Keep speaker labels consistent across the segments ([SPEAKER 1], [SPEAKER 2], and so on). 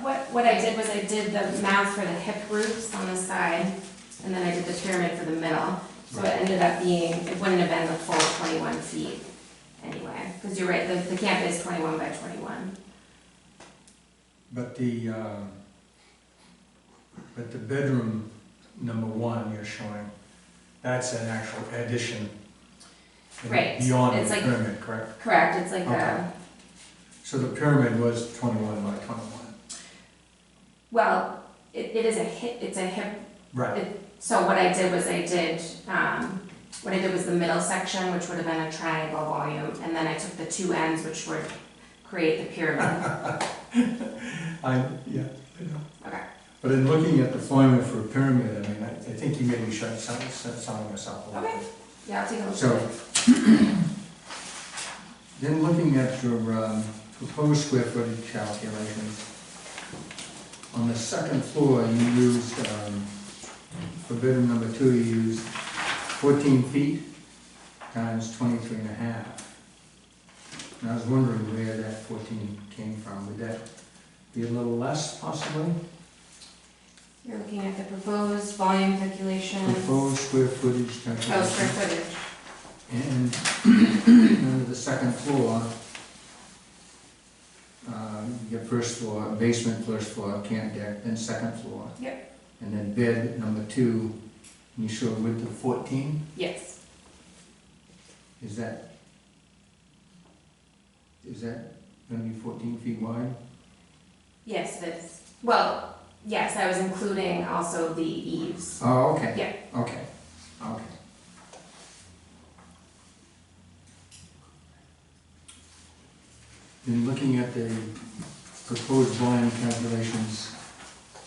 [SPEAKER 1] what I did was I did the mouth for the hip roofs on the side, and then I did the pyramid for the middle. So it ended up being, it wouldn't have been the full twenty-one feet anyway, because you're right, the, the camp is twenty-one by twenty-one.
[SPEAKER 2] But the, uh, but the bedroom number one you're showing, that's an actual addition. you know,
[SPEAKER 1] Right,
[SPEAKER 2] Beyond
[SPEAKER 1] it's
[SPEAKER 2] the
[SPEAKER 1] like-
[SPEAKER 2] pyramid, correct?
[SPEAKER 1] Correct, it's like
[SPEAKER 2] Okay.
[SPEAKER 1] a,
[SPEAKER 2] So the pyramid was twenty-one by twenty-one.
[SPEAKER 1] well, it, it is a hip, it's a hip
[SPEAKER 2] Right,
[SPEAKER 1] So what I did was I did, um, what I did was the middle section, which would have been a triangle volume, and then I took the two ends, which would create the pyramid.
[SPEAKER 2] I, yeah, I know.
[SPEAKER 1] Okay.
[SPEAKER 2] But in looking at the formula for a pyramid, I mean, I, I think you maybe shut some, some- some of this up a little
[SPEAKER 1] Okay.
[SPEAKER 2] bit.
[SPEAKER 1] Yeah, I'll take a look.
[SPEAKER 2] So, then looking at your um, proposed square footage calculations, on the second floor, you used, um, for bedroom number two, you used fourteen feet times twenty-three and a half. And I was wondering where that fourteen came from, would that be a little less possibly?
[SPEAKER 1] You're looking at the proposed volume calculation.
[SPEAKER 2] Proposed square footage calculation.
[SPEAKER 1] Oh, square footage.
[SPEAKER 2] And under the second floor, uh, your first floor, basement, first floor, camp deck, then second floor. Yep. And then bed number two, you show width of fourteen,
[SPEAKER 1] Yes.
[SPEAKER 2] is that, is that gonna be fourteen feet wide?
[SPEAKER 1] Yes, it is. Well, yes, I was including also the eaves.
[SPEAKER 2] Oh, okay.
[SPEAKER 1] Yeah.
[SPEAKER 2] Okay, okay. In looking at the proposed volume calculations,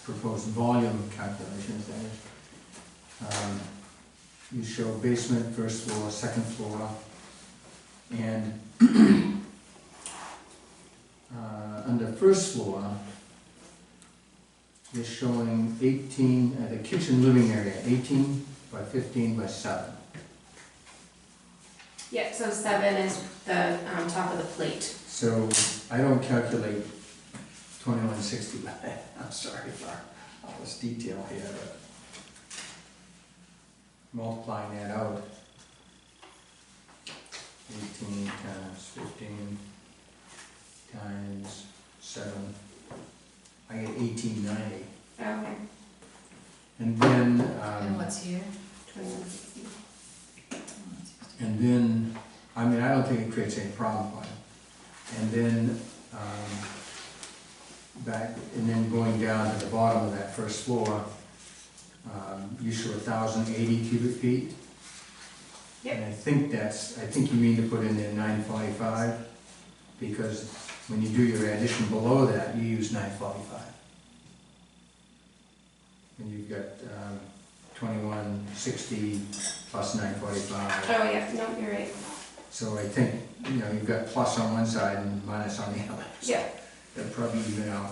[SPEAKER 2] proposed volume calculations, that is, um, you show basement, first floor, second floor, and uh, under first floor, is showing 18, uh, the kitchen living area, 18 by 15 by 7.
[SPEAKER 1] Yep, so seven is the, um, top of the plate.
[SPEAKER 2] So I don't calculate 2160 by that. I'm sorry for all this detail here, but multiplying that out, 18 times 15 times 7, I get 1890.
[SPEAKER 1] Oh, Okay.
[SPEAKER 2] And then...
[SPEAKER 3] And
[SPEAKER 2] um,
[SPEAKER 3] what's here?
[SPEAKER 1] Twenty-one sixty.
[SPEAKER 2] And then, I mean, I don't think it creates any problem for it. And then, um, back, and then going down to the bottom of that first floor, um, you show thousand eighty cubic feet.
[SPEAKER 1] Yep.
[SPEAKER 2] And I think that's, I think you mean to put in there nine forty-five, because when you do your addition below that, you use nine forty-five. And you've got, um, twenty-one sixty plus nine forty-five.
[SPEAKER 1] Oh, yeah, no, you're right.
[SPEAKER 2] So I think, you know, you've got plus on one side and minus on the other.
[SPEAKER 1] Yeah.
[SPEAKER 2] They're probably even out.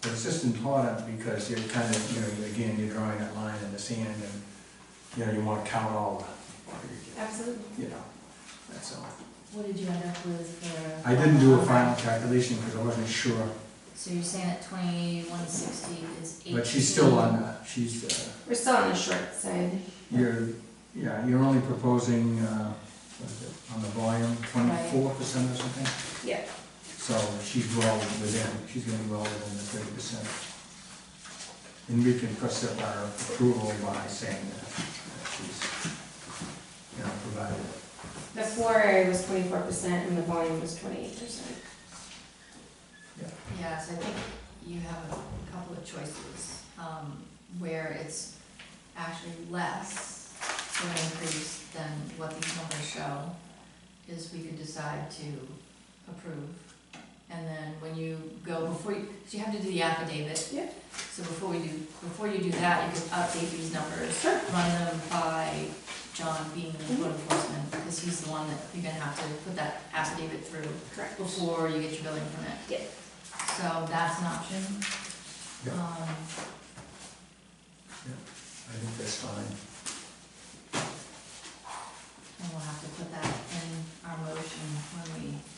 [SPEAKER 2] But it's just important because you're kind of, you know, again, you're drawing that line in the sand and, you know, you want to count all
[SPEAKER 1] Absolutely.
[SPEAKER 2] the, you know, that's all.
[SPEAKER 3] What did you end up with for?
[SPEAKER 2] I didn't do a final calculation because I wasn't sure,
[SPEAKER 3] So you're saying that twenty-one sixty is eighteen?
[SPEAKER 2] but she's still on, the- she's, uh,
[SPEAKER 1] We're still on the short side.
[SPEAKER 2] you're, yeah, you're only proposing, uh, what is it, on the volume, twenty-four percent or something?
[SPEAKER 1] Yeah.
[SPEAKER 2] So she's well within, she's gonna be well within the thirty percent. And we can press up our approval by saying that that she's, you know, provided.
[SPEAKER 1] The floor area was twenty-four percent and the volume was twenty-eight percent.
[SPEAKER 3] Yeah, so I think you have a couple of choices, um, where it's actually less of an increase than what these numbers show, is we could decide to approve. And then when you go, before, you- so you have to do the affidavit.
[SPEAKER 1] Yeah.
[SPEAKER 3] So before we do, before you do that, you can update these numbers. Run them by John being the code enforcement, because he's the one that you're gonna have to put that affidavit through
[SPEAKER 1] Correct.
[SPEAKER 3] before you get your building permit.
[SPEAKER 1] Yeah.
[SPEAKER 3] So that's an option.
[SPEAKER 2] Yeah.
[SPEAKER 3] Um,
[SPEAKER 2] I think that's fine.
[SPEAKER 3] and we'll have to put that in our motion when we